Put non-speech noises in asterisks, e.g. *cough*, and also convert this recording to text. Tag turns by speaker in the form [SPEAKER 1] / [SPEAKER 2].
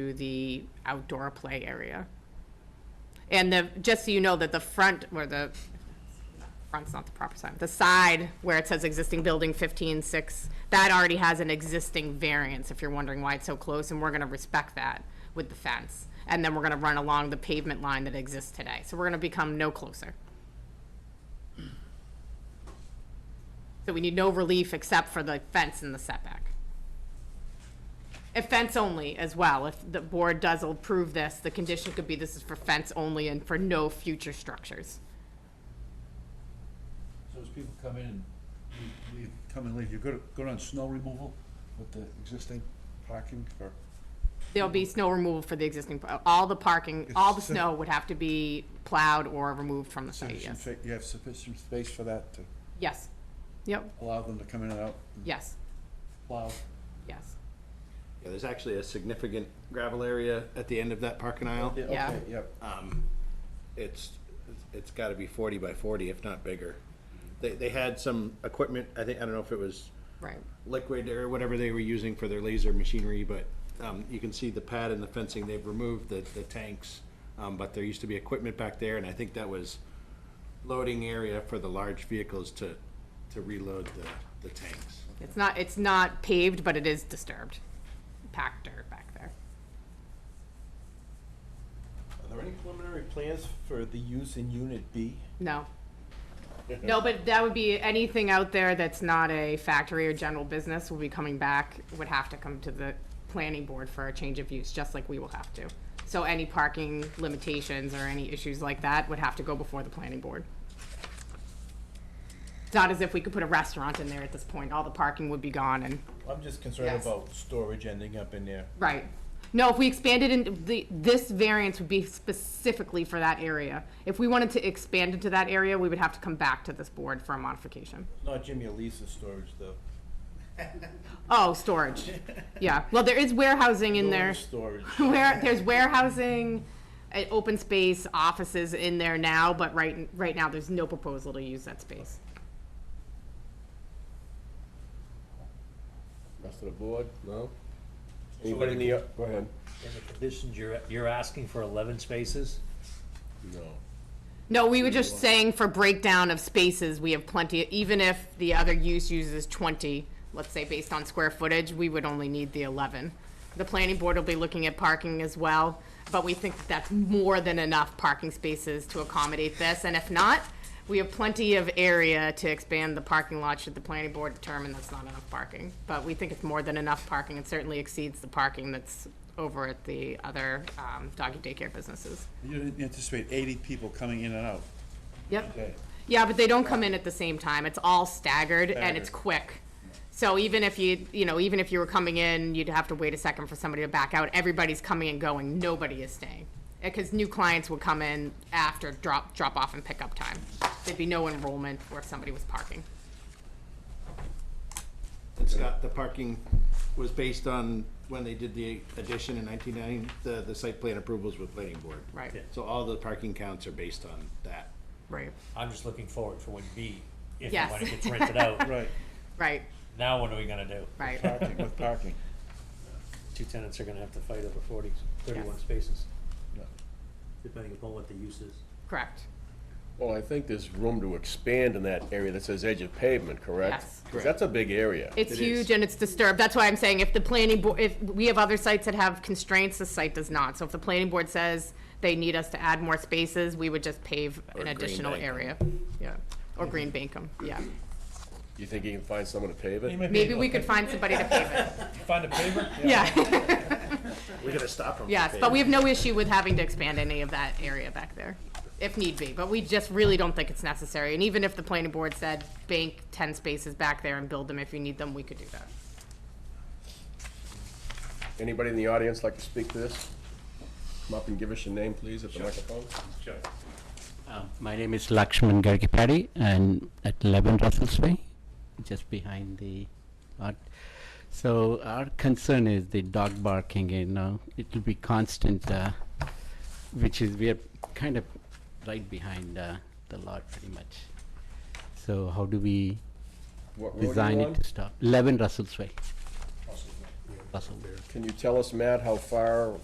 [SPEAKER 1] to the outdoor play area. And the, just so you know that the front, where the, front's not the proper side, the side where it says existing building fifteen six, that already has an existing variance, if you're wondering why it's so close, and we're gonna respect that with the fence. And then we're gonna run along the pavement line that exists today, so we're gonna become no closer. So we need no relief except for the fence and the setback. If fence only as well, if the board does approve this, the condition could be this is for fence only and for no future structures.
[SPEAKER 2] So as people come in and leave- leave, come and leave, you're good, good on snow removal with the existing parking or?
[SPEAKER 1] Uh, There'll be snow removal for the existing, all the parking, all the snow would have to be plowed or removed from the site,
[SPEAKER 2] sufficient
[SPEAKER 1] yes.
[SPEAKER 2] fa- You have sufficient space for that to
[SPEAKER 1] Yes, yep,
[SPEAKER 2] allow them to come in and out and
[SPEAKER 1] yes,
[SPEAKER 2] plow?
[SPEAKER 1] yes.
[SPEAKER 3] Yeah, there's actually a significant gravel area at the end of that parking aisle.
[SPEAKER 1] Oh, Yeah. Uh,
[SPEAKER 2] Okay, yep.
[SPEAKER 3] Um, It's, it's gotta be forty by forty, if not bigger. They, they had some equipment, I think, I don't know if it was
[SPEAKER 1] Right,
[SPEAKER 3] liquid or whatever they were using for their laser machinery, but um, you can see the pad and the fencing, they've removed the, the tanks. Um, But there used to be equipment back there, and I think that was loading area for the large vehicles to, to reload the, the tanks.
[SPEAKER 1] it's not, it's not paved, but it is disturbed, packed dirt back there.
[SPEAKER 4] Are there any preliminary plans for the use in Unit B?
[SPEAKER 1] No. No, but that would be, anything out there that's not a factory or general business will be coming back, would have to come to the planning board for a change of use, just like we will have to. So any parking limitations or any issues like that would have to go before the planning board. It's not as if we could put a restaurant in there at this point, all the parking would be gone and,
[SPEAKER 4] I'm just concerned
[SPEAKER 1] Yes.
[SPEAKER 4] about storage ending up in there.
[SPEAKER 1] right. No, if we expanded in, the, this variance would be specifically for that area. If we wanted to expand into that area, we would have to come back to this board for a modification.
[SPEAKER 4] Not Jimmy Elisa's storage, though.
[SPEAKER 1] Oh, storage. Yeah. Well, there is warehousing in
[SPEAKER 4] Building
[SPEAKER 1] there.
[SPEAKER 4] Storage.
[SPEAKER 1] *laughs* Where there's warehousing, uh, open space, offices in there now, but right right now there's no proposal to use that space.
[SPEAKER 3] Rest of the board, no?
[SPEAKER 5] Anybody in the, go ahead.
[SPEAKER 6] In the conditions, you're, you're asking for eleven spaces?
[SPEAKER 5] No.
[SPEAKER 1] No, we were just saying for breakdown of spaces, we have plenty. Even if the other use uses 20, let's say based on square footage, we would only need the 11. The planning board will be looking at parking as well, but we think that that's more than enough parking spaces to accommodate this. And if not, we have plenty of area to expand the parking lot should the planning board determine that's not enough parking. But we think it's more than enough parking. It certainly exceeds the parking that's over at the other um, doggy daycare businesses.
[SPEAKER 2] You didn't anticipate eighty people coming in and out
[SPEAKER 1] Yep.
[SPEAKER 2] today?
[SPEAKER 1] Yeah, but they don't come in at the same time. It's all staggered and it's
[SPEAKER 2] Staggered.
[SPEAKER 1] quick. So even if you, you know, even if you were coming in, you'd have to wait a second for somebody to back out. Everybody's coming and going. Nobody is staying. Because new clients would come in after drop, drop off and pick up time. There'd be no enrollment where somebody was parking.
[SPEAKER 3] And Scott, the parking was based on when they did the addition in nineteen ninety, the, the site plan approvals with planning board.
[SPEAKER 1] Right. Yeah.
[SPEAKER 3] So all the parking counts are based on that.
[SPEAKER 1] Right.
[SPEAKER 6] I'm just looking forward for when B, if
[SPEAKER 1] Yes.
[SPEAKER 6] and when it gets rented out.
[SPEAKER 2] Right,
[SPEAKER 1] *laughs* Right,
[SPEAKER 6] Now what are we gonna do?
[SPEAKER 1] right.
[SPEAKER 2] parking, with parking.
[SPEAKER 6] Two tenants are gonna have to fight over 40, 31
[SPEAKER 1] Yes.
[SPEAKER 6] spaces,
[SPEAKER 2] Yeah.
[SPEAKER 6] depending upon what the use is.
[SPEAKER 1] Correct.
[SPEAKER 5] Well, I think there's room to expand in that area that says edge of pavement, correct?
[SPEAKER 1] Yes.
[SPEAKER 5] 'Cause that's a big area.
[SPEAKER 1] It's
[SPEAKER 3] It
[SPEAKER 1] huge
[SPEAKER 3] is.
[SPEAKER 1] and it's disturbed. That's why I'm saying if the planning board, if we have other sites that have constraints, this site does not. So if the planning board says they need us to add more spaces, we would just pave an
[SPEAKER 5] green
[SPEAKER 1] additional
[SPEAKER 5] bank 'em.
[SPEAKER 1] area. Yeah, or green bank 'em. yeah.
[SPEAKER 5] You think you can find someone to pave
[SPEAKER 2] You
[SPEAKER 5] it?
[SPEAKER 2] might be
[SPEAKER 1] Maybe
[SPEAKER 2] able
[SPEAKER 1] we
[SPEAKER 2] to
[SPEAKER 1] could find somebody to pave it.
[SPEAKER 2] Find a paver?
[SPEAKER 1] Yeah, *laughs*
[SPEAKER 3] We're gonna stop them.
[SPEAKER 1] yes, but we have no issue with having to expand any of that area back there, if need be. But we just really don't think it's necessary. And even if the planning board said bank ten spaces back there and build them if you need them, we could do that.
[SPEAKER 5] Anybody in the audience like to speak to this? Come up and give us your name, please, at the microphone.
[SPEAKER 7] Uh, My name is Lakshman Gargipati, and at 11 Russell's Way, just behind the art. So our concern is the dog barking, you know, it'll be constant, uh, which is, we are kind of right behind uh, the lot pretty much. So how do we
[SPEAKER 5] What road are
[SPEAKER 7] design
[SPEAKER 5] you
[SPEAKER 7] it
[SPEAKER 5] on?
[SPEAKER 7] to stop? 11 Russell's Way. Russell.
[SPEAKER 5] Can you tell us, Matt, how far